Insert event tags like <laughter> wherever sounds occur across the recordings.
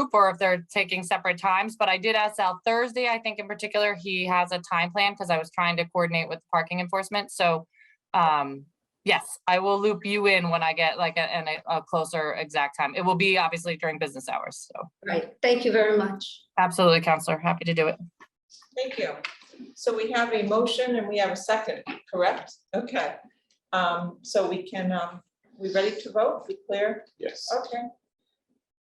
group or if they're taking separate times, but I did ask Sal Thursday, I think in particular, he has a time plan because I was trying to coordinate with parking enforcement, so um, yes, I will loop you in when I get like a, an- a closer exact time. It will be obviously during business hours, so Right, thank you very much. absolutely, Counselor, happy to do it. Thank you. So we have a motion and we have a second, correct? Okay. Um, So we can, um, we ready to vote? We clear? Yes. Okay.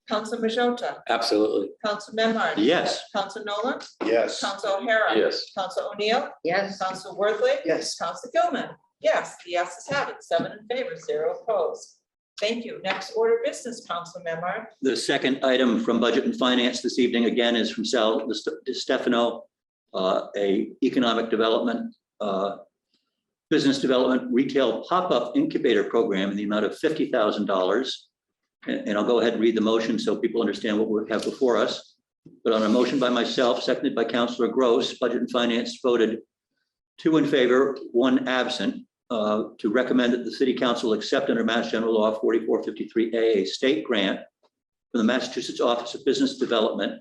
Council Majota, Absolutely. Council Memard. Yes. Council Nolan, Yes. Council O'Hara. Yes. Council O'Neill, Yes, Council Worthley. Yes. Council Gilman. Yes, the yeses have it, seven in favor, zero opposed. Thank you. Next order of business, Council Memard. The second item from Budget and Finance this evening, again, is from Sal Di Stefano, uh, a economic development, uh, business development retail pop-up incubator program in the amount of fifty thousand dollars. And and I'll go ahead and read the motion so people understand what we have before us. But on a motion by myself, seconded by Counselor Gross, Budget and Finance voted two in favor, one absent, uh, to recommend that the city council accept under Mass General Law forty-four fifty-three A, a state grant from the Massachusetts Office of Business Development,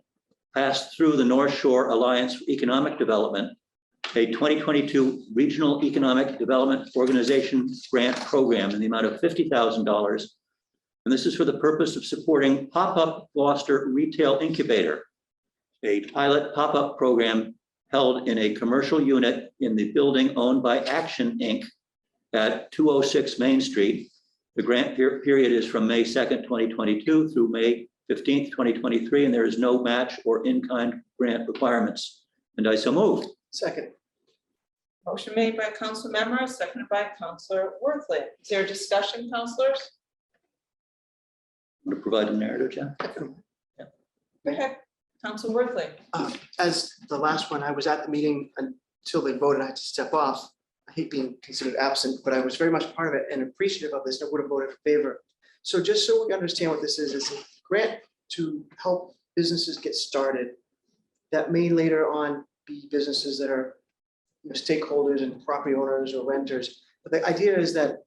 passed through the North Shore Alliance for Economic Development, a 2022 Regional Economic Development Organization Grant Program in the amount of $50,000. And this is for the purpose of supporting Pop-Up Gloucester Retail Incubator, a pilot pop-up program held in a commercial unit in the building owned by Action Inc. at 206 Main Street the grant per- period is from May 2nd, 2022 through May 15th, 2023, and there is no match or in-kind grant requirements. And I so move. Second. Motion made by Council Memard, seconded by Council Worthley. Is there discussion, councilors? Want to provide a narrative, Jeff? Go ahead, Council Worthley. Uh, As the last one, I was at the meeting until they voted, I had to step off. I hate being considered absent, but I was very much part of it and appreciative of this, and I would have voted in favor. So just so we understand what this is, it's a grant to help businesses get started that may later on be businesses that are you know, stakeholders and property owners or renters. But the idea is that,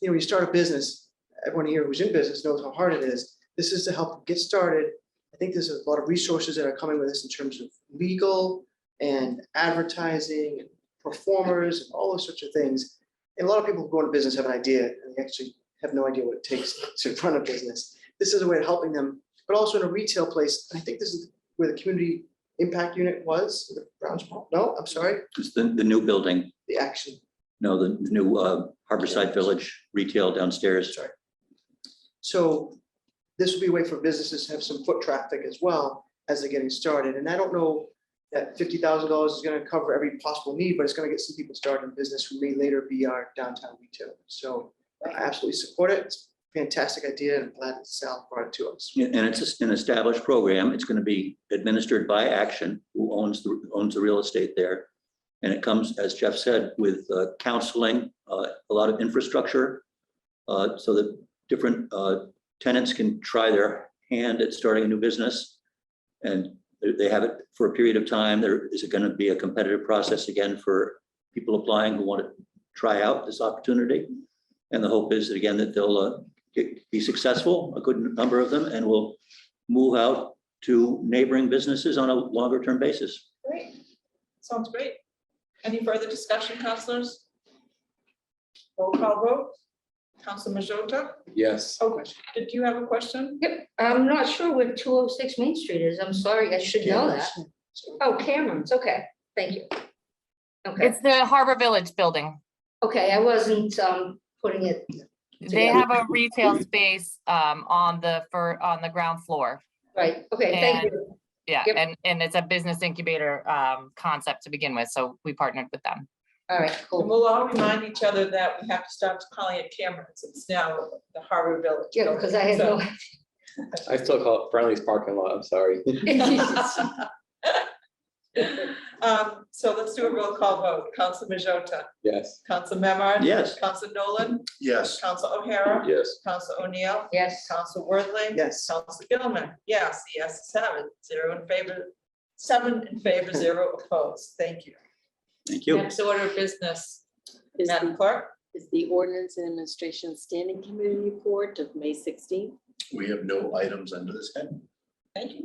you know, you start a business, everyone here who's in business knows how hard it is. This is to help get started I think there's a lot of resources that are coming with this in terms of legal and advertising and performers and all those sorts of things. And a lot of people who go into business have an idea and they actually have no idea what it takes to run a business. This is a way of helping them, but also in a retail place. And I think this is where the community impact unit was, the Brown's Mall. No, I'm sorry, It's the, the new building, the action. no, the the new uh, Harborside Village retail downstairs. So this will be a way for businesses to have some foot traffic as well as they're getting started. And I don't know that fifty thousand dollars is gonna cover every possible need, but it's gonna get some people started in business who may later be our downtown retailer. So I absolutely support it. It's a fantastic idea and I'm glad that Sal brought it to us. And it's an established program. It's going to be administered by Action, who owns, the owns the real estate there. And it comes, as Jeff said, with uh, counseling, uh, a lot of infrastructure, uh, so that different uh, tenants can try their hand at starting a new business. And they- they have it for a period of time. There is going to be a competitive process again for people applying who want to try out this opportunity. And the hope is that, again, that they'll uh, get- be successful, a good number of them, and will move out to neighboring businesses on a longer term basis. Great. Sounds great. Any further discussion, councilors? Roll call vote. Council Majota? Yes. Oh, did you have a question? I'm not sure where two oh six Main Street is, I'm sorry, I should know that. Oh, Cameron's, okay, thank you. Okay, It's the Harbor Village building. okay, I wasn't um putting it, They Yeah. have a retail space um on the for on the ground floor. right, okay, thank you, Yeah, Yep. and and it's a business incubator um concept to begin with, so we partnered with them. all right, And cool. we'll all remind each other that we have to stop calling it Cameron's. It's now the Harbor Village. Yeah, because I had no. I still call it Friendly's parking lot, I'm <laughs> sorry. <laughs> <laughs> Um, So let's do a roll call vote. Council Majota, Yes. Council Memard. Yes. Council Nolan, Yes. Council O'Hara, Yes. Council O'Neill, Yes, Council Worthley. Yes. Council Gilman, yes, yes, seven, zero in favor, seven in favor, zero opposed. Thank you. Thank you. Next order of business, Is Madam the, Clerk. is the ordinance and administration standing committee report of May sixteenth? We have no items under this head. Thank you.